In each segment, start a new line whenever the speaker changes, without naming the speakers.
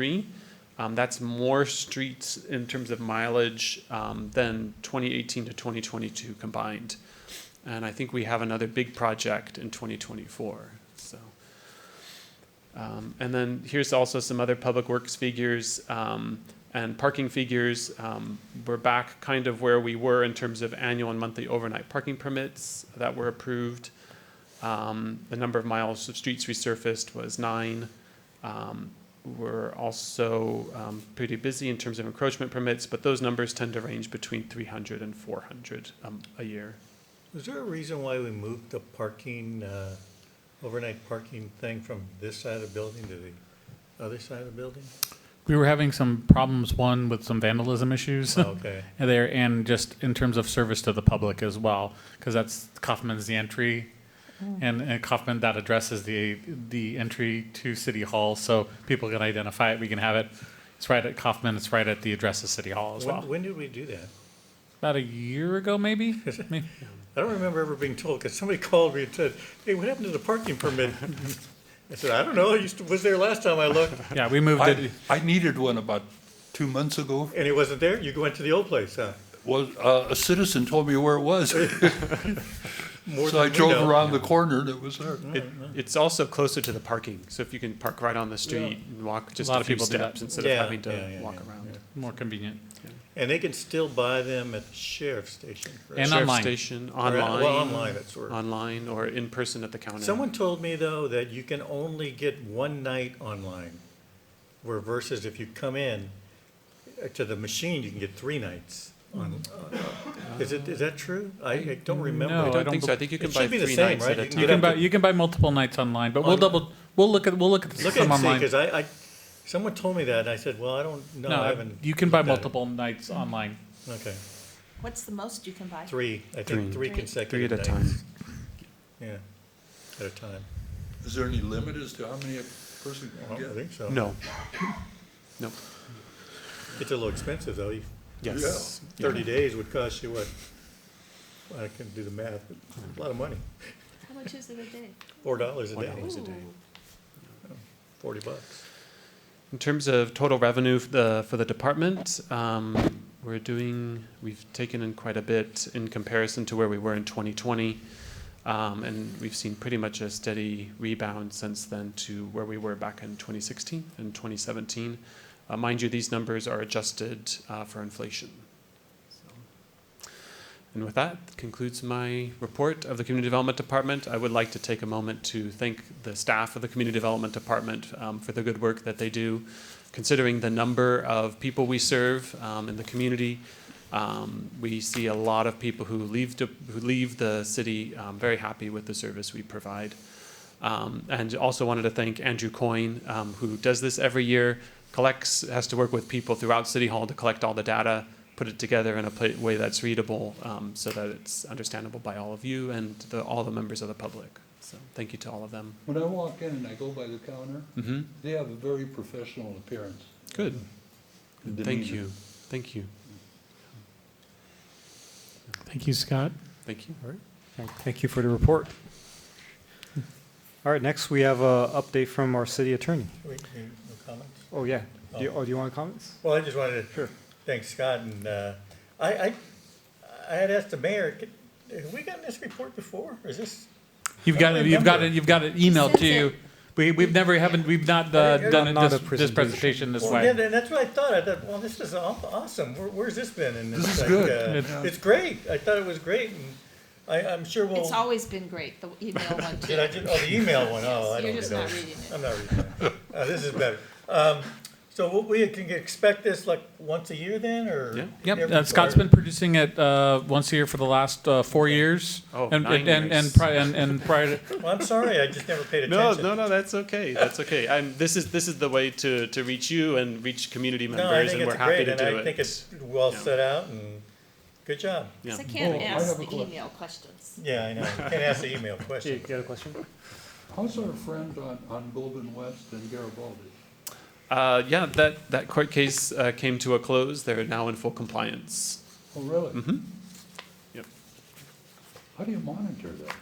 three. Um, that's more streets in terms of mileage um, than 2018 to 2022 combined. And I think we have another big project in 2024. So, um, and then here's also some other public works figures um, and parking figures. Um, we're back kind of where we were in terms of annual and monthly overnight parking permits that were approved. Um, the number of miles of streets resurfaced was nine. Um, we're also um, pretty busy in terms of encroachment permits, but those numbers tend to range between 300 and 400 um, a year.
Was there a reason why we moved the parking, uh, overnight parking thing from this side of the building to the other side of the building?
We were having some problems, one with some vandalism issues
Oh,
uh,
Okay,
there, and just in terms of service to the public as well, because that's Kaufman's the entry,
Mm.
and, and Kaufman that addresses the the entry to City Hall, so people can identify it. We can have it. It's right at Kaufman. It's right at the address of City Hall as well.
when, when did we do that?
About a year ago, maybe. May-
I don't remember ever being told, because somebody called me and said, hey, what happened to the parking permit? I said, I don't know, I used to, was there last time I looked,
yeah, we moved
I,
it.
I needed one about two months ago.
and it wasn't there, you went to the old place, huh?
Well, uh, a citizen told me where it was,
More
so I
than we
drove
know.
around the corner and it was there.
It, it's also closer to the parking, so if you can park right on the street and walk just a,
lot of
few
people do that.
steps instead
Yeah,
of having to
yeah, yeah,
walk
yeah,
around.
yeah.
More convenient.
And they can still buy them at the sheriff's station. correct?
And
Sheriff's
online.
station,
Or at-
online,
Well, online, it's where.
online, or in person at the counter.
Someone told me though that you can only get one night online, where versus if you come in uh, to the machine, you can get three nights. On, uh, is it is that true? I, I don't remember.
I
Mm-hmm. No,
don't,
Oh, I don't
think so.
bel-
I think you
It
can
should
buy
be the
three
same,
nights at
right?
a time.
You can get
You can
up
buy
to-
you can buy multiple nights online, but we'll
Online.
double we'll look at we'll look at the
Look
system
and see,
online.
because I, I someone told me that, and I said, well, I don't know. I
no,
haven't.
you can buy
looked at it.
multiple nights online.
Okay,
What's the most you can buy?
three. I think three,
Three.
Three
consecutive
at a
nights.
time.
Yeah, at a time.
Is there any limit as to how many a person
I don't
can get?
think so.
No. No.
it's a little expensive though. You-
Yes. Yeah.
Thirty days would cost you what? I can do the math. But a lot of money.
How much is it a day?
Four dollars a
Four
day,
dollars. It's a day.
Ooh.
forty bucks.
In terms of total revenue for the, for the department, um, we're doing, we've taken in quite a bit in comparison to where we were in 2020. Um, and we've seen pretty much a steady rebound since then to where we were back in 2016 and 2017. Uh, mind you, these numbers are adjusted uh, for inflation. So- And with that concludes my report of the Community Development Department. I would like to take a moment to thank the staff of the Community Development Department um, for the good work that they do, considering the number of people we serve um, in the community. Um, we see a lot of people who leave to, who leave the city um, very happy with the service we provide. Um, and also wanted to thank Andrew Coyne, um, who does this every year, collects, has to work with people throughout City Hall to collect all the data, put it together in a pla- way that's readable um, so that it's understandable by all of you and the, all the members of the public. So thank you to all of them.
When I walk in and I go by the counter,
Mm-hmm.
they have a very professional appearance.
Good.
and
Thank
demeanor.
you. Thank you.
Thank you, Scott.
Thank you.
Thank- Thank you for the report. All right, next we have a update from our city attorney.
Wait, you- no comments?
Oh, yeah. Do you, oh, do you want comments?
Well, I just wanted to thank Scott and, uh, I, I, I had asked the mayor, could- have we gotten this report before? Is this?
You've
I
got
don't
it. You've got it.
remember.
You've got it emailed
Since
to you.
it-
We we've never haven't we've not uh,
Not-
done it
not a
this, this
presentation.
presentation this
Well,
way.
yeah, then that's what I thought. I thought, well, this is aw- awesome. Where, where's this been? And
This
it's
is
like,
good.
uh,
It's-
It's great. I thought it was great and I, I'm sure we'll.
It's always been great, the email one too.
Did I just, oh, the email one, oh, I
You're
don't
just
know.
not reading it.
I'm not reading it. Uh, this is better. Um, so what we can expect this like once a year then or?
Yeah.
Yep.
every-
Uh, Scott's
or-
been producing it uh, once a year for the last uh, four years.
Oh,
and,
nine
and, and,
years.
and pri- and and prior to,
Well, I'm sorry, I just never paid
No,
attention.
no, no. That's okay. That's okay. I'm, this is this is the way to to reach you and reach community members,
No, I think
and we're
it's
happy
great,
to
and
do it.
I think it's well
Yeah.
set out, and good job.
yeah.
'Cause I can't
Oh, I
ask
have a
the
question.
email questions.
Yeah, I know, you can't ask the email
You
question.
got a question?
How's our friend on, on Goldman West and Garibaldi?
Uh, yeah, that, that court case uh, came to a close. They're now in full compliance.
Mm-hmm.
Oh, really?
Mhm. Yep.
How do you monitor that?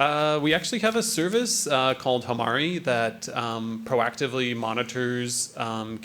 Uh, we actually have a service uh, called Hamari that um, proactively monitors um,